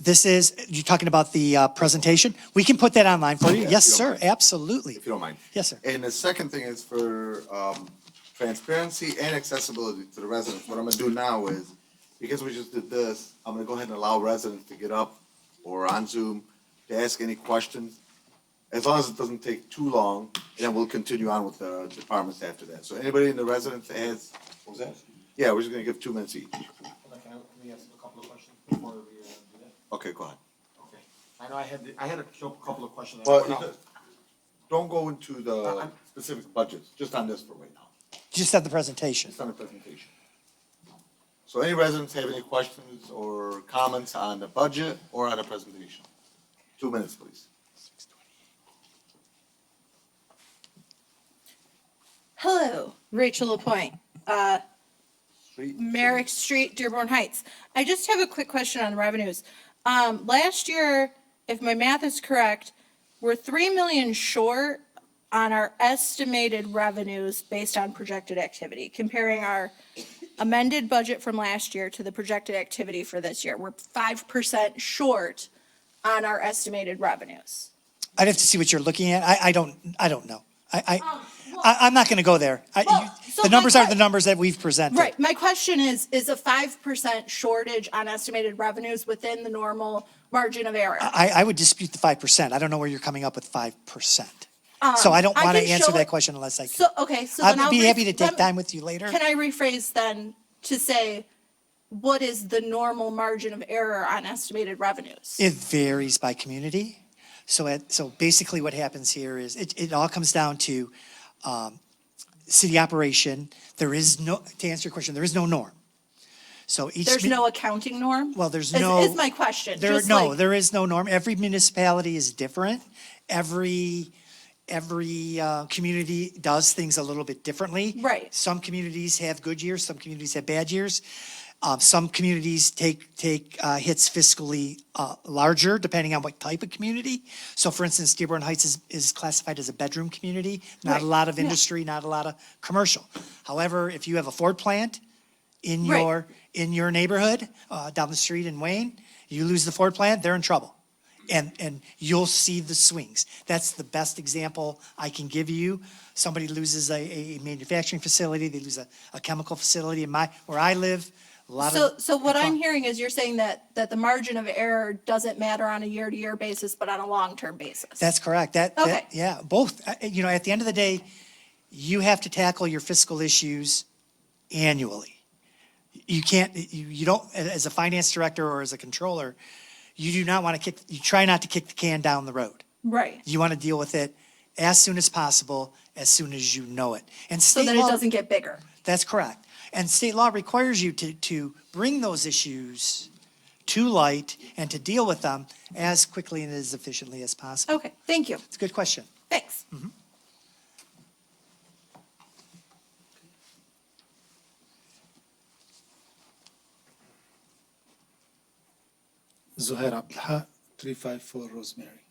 This is, you're talking about the uh, presentation? We can put that online for you. Yeah, Yes, if you don't sir, mind. absolutely. if you don't mind. Yes, sir. And the second thing is for um transparency and accessibility to the residents. What I'm gonna do now is, because we just did this, I'm gonna go ahead and allow residents to get up or on Zoom to ask any questions. As long as it doesn't take too long, and then we'll continue on with the departments after that. So anybody in the residence has, what was that? Yeah, we're just gonna give two minutes each. Like, I- Let me ask a couple of questions before we uh, do that. Okay, go ahead. Okay. I know I had, I had a cou- couple of questions. I Well, wrote you out. just- don't go into the specific budgets, just on this for right now. Just have the presentation. It's on the presentation. So any residents have any questions or comments on the budget or on the presentation? Two minutes, please. Hello, Rachel Lapointe, uh, Street. Merrick Street, Dearborn Heights. I just have a quick question on revenues. Um, last year, if my math is correct, we're three million short on our estimated revenues based on projected activity, comparing our amended budget from last year to the projected activity for this year. We're five percent short on our estimated revenues. I'd have to see what you're looking at. I, I don't, I don't know. I, I, I, I'm not gonna go there. I- Um, well, you- so The my numbers are the que- numbers that we've presented. Right. My question is, is a five percent shortage on estimated revenues within the normal margin of error? I, I would dispute the five percent. I don't know where you're coming up with five percent. So I don't Um, I wanna can answer show that it- question unless I So, can. okay, so then I'll. I'd be re- happy to take lem- time with you later. Can I rephrase then to say, what is the normal margin of error on estimated revenues? It varies by community. So it, so basically what happens here is it, it all comes down to, um, city operation. There is no, to answer your question, there is no norm. So each. There's mi- no accounting norm? Well, there's Is- no- Is my question. There, Just no, like- there is no norm. Every municipality is different. Every, every, uh, community does things a little bit differently. Right. Some communities have good years, some communities have bad years. Um, some communities take, take, uh, hits fiscally, uh, larger depending on what type of community. So for instance, Dearborn Heights is, is classified as a bedroom community, not a Right. lot of Yeah. industry, not a lot of commercial. However, if you have a Ford plant, in Right. your, in your neighborhood, uh, down the street in Wayne, you lose the Ford plant, they're in trouble. And, and you'll see the swings. That's the best example I can give you. Somebody loses a, a manufacturing facility, they lose a, a chemical facility in my, where I live, a lot So, of. so what I'm hearing is you're saying that, that the margin of error doesn't matter on a year-to-year basis, but on a long-term basis? That's correct. That, that- Okay. yeah, both, Uh, you know, at the end of the day, you have to tackle your fiscal issues annually. you can't, you, you don't, as a finance director or as a controller, you do not want to kick, you try not to kick the can down the road. Right. You want to deal with it as soon as possible, as soon as you know it. And So state that it law- doesn't get bigger? That's correct. And state law requires you to, to bring those issues to light and to deal with them as quickly and as efficiently as possible. Okay, thank you. It's a good question. Thanks. Zuhair Abdulha, 354 Rosemary.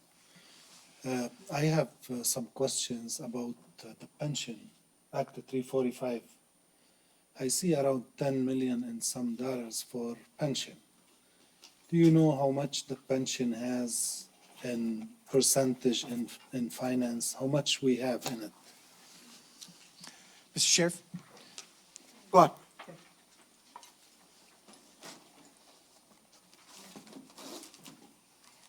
Uh, I have uh, some questions about uh, the pension, Act 345. I see around 10 million and some dollars for pension. Do you know how much the pension has in percentage in, in finance, how much we have in it? Mr. Sheriff? Go ahead.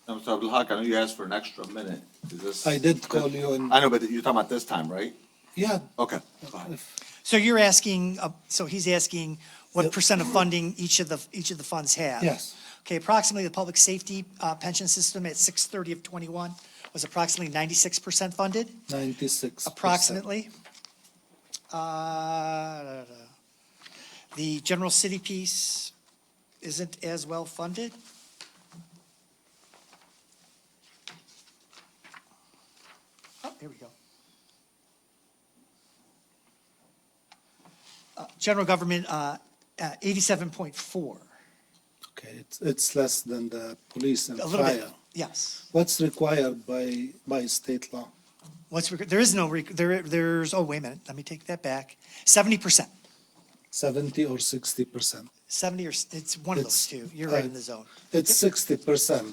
Now, Mr. Abdalhak, I know you asked for an extra minute. Is this? I did call you and- I know, but you're talking about this time, right? Yeah, Okay. go ahead. So you're asking, uh, so he's asking what percent of funding each of the, each of the funds have? Yes. Okay, approximately the public safety uh, pension system at 6:30 of '21 was approximately 96% funded, 96%. approximately. Uh, da, da, da. The general city piece isn't as well funded. Oh, here we go. Uh, General government, uh, uh, 87.4, Okay, it's, it's less than the police and a little bit, fire. yes. What's required by, by state law? What's, rec- there is no, rec- there, there's, oh, wait a minute, let me take that back. Seventy percent seventy or sixty percent. Seventy or, s- it's one of those It's- two. You're right uh, in the zone. It's sixty percent.